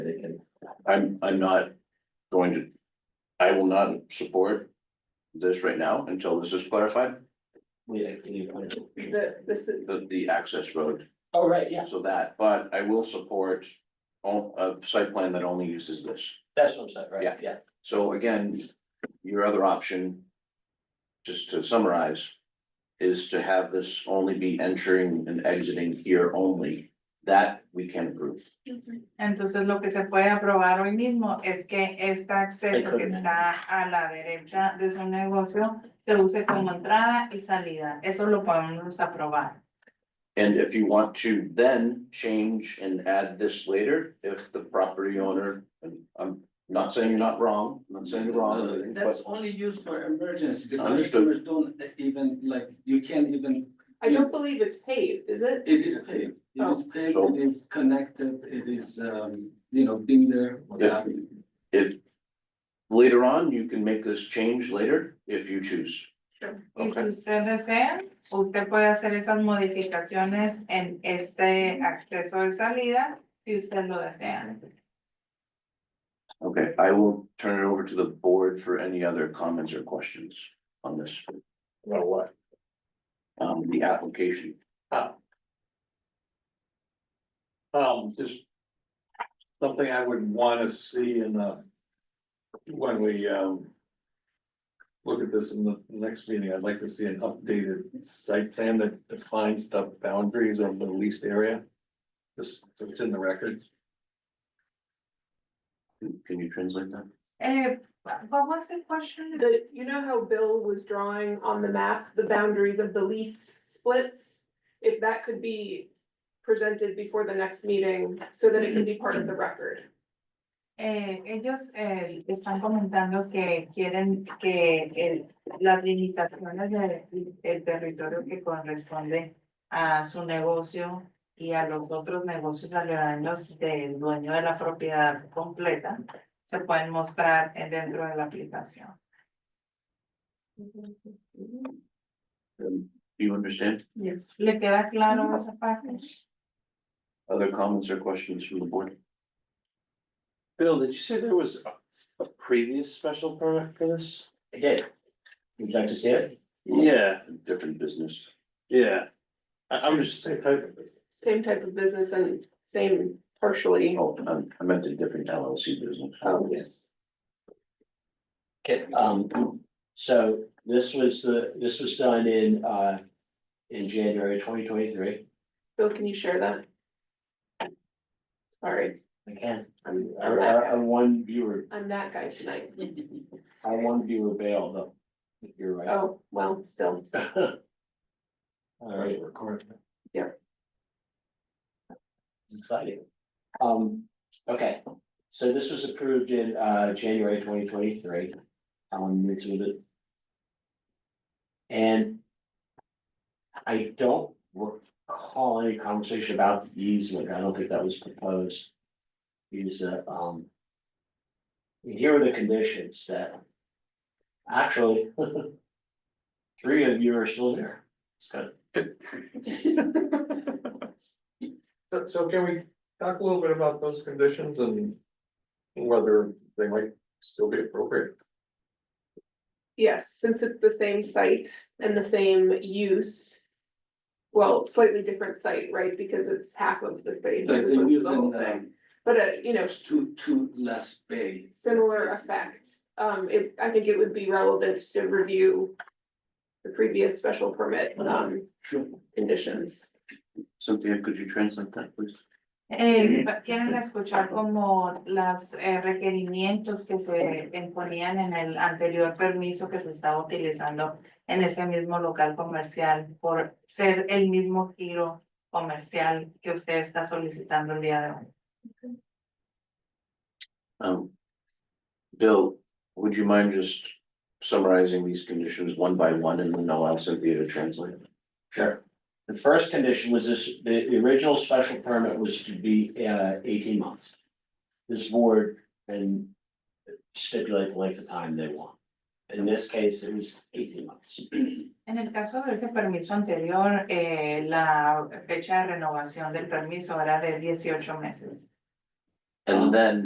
I'm, I'm not going to, I will not support this right now until this is clarified, We had actually appointed. The, this is, the, the access road, Oh, right, yeah, so that, but I will support all, a site plan that only uses this. that's what I'm saying, right, Yeah. yeah, So again, your other option, just to summarize, is to have this only be entering and exiting here only. That we can approve. Entonces lo que se puede aprobar hoy mismo es que este acceso que está a la derecha de su negocio se use como entrada y salida. Eso lo podemos aprobar. And if you want to then change and add this later, if the property owner, and I'm not saying you're not wrong, I'm not saying you're wrong. or anything, Uh, That's but only used for emergency, the Understood. customers don't even, like, you can't even, I Oh. don't believe it's paved, is it? it is paved. It is paved, So- it is connected, it is, um, you know, been there. what Yeah. have you. If later on, you can make this change later if you choose. Y si Okay. usted desea, usted puede hacer esas modificaciones en este acceso de salida si usted lo desea. Okay, I will turn it over to the board for any other comments or questions on this. Well, what? Um, the application, Um, just something I would wanna see in the, when we, um. Look at this in the next meeting, I'd like to see an updated site plan that defines the boundaries of the leased area. Just, so it's in the record. Can- can you translate that? Eh, what was the question? The, you know how Bill was drawing on the map, the boundaries of the lease splits? If that could be presented before the next meeting, so that it can be part of the record. Eh, ellos eh, están comentando que quieren que el- las limitaciones de- del territorio que corresponde a su negocio y a los otros negocios aledaños del dueño de la propiedad completa se pueden mostrar eh, dentro de la aplicación. Um, Do you understand? ¿Le queda claro esa parte? Other comments or questions from the board? Bill, did you say there was a, a previous special permit for this? I did. Would you like to see it? Yeah, Different business. yeah. I, I'm just, Same type of it. Same type of business and same partially. Oh, I- I meant a different LLC business. Oh, yes. Okay, um, so this was the, this was done in, uh, in January twenty twenty-three. Bill, can you share that? Sorry, Again, I'm, I, I, I one viewer, I'm that guy tonight. I one viewer bail though. If You're right. Oh, well, still, All right, record. Yeah. It's Exciting. Um, okay, so this was approved in uh January twenty twenty-three. Um, we did it. And. I don't recall any conversation about the easement, I don't think that was proposed. Use a um. Here are the conditions that. Actually. Three of you are still there. It's good. So, so can we talk a little bit about those conditions and whether they might still be appropriate? yes, since it's the same site and the same use. Well, slightly different site, right, because it's half of the space. as Like they opposed to use the whole in, thing. um, But, uh, you know, it's too, too less bay. similar effect. Um, it, I think it would be relevant to review the previous special permit, um, conditions. Cynthia, could you translate that, please? Eh, pa- quieren escuchar como los requerimientos que se imponían en el anterior permiso que se estaba utilizando en ese mismo local comercial por ser el mismo giro comercial que usted está solicitando el día de hoy. Um. Bill, would you mind just summarizing these conditions one by one and then allow Cynthia to translate? Sure. The first condition was this, the, the original special permit was to be, uh, eighteen months. This board can stipulate the length of time they want. In this case, it was eighteen months. En el caso de ese permiso anterior, eh, la fecha de renovación del permiso era de 18 meses. And then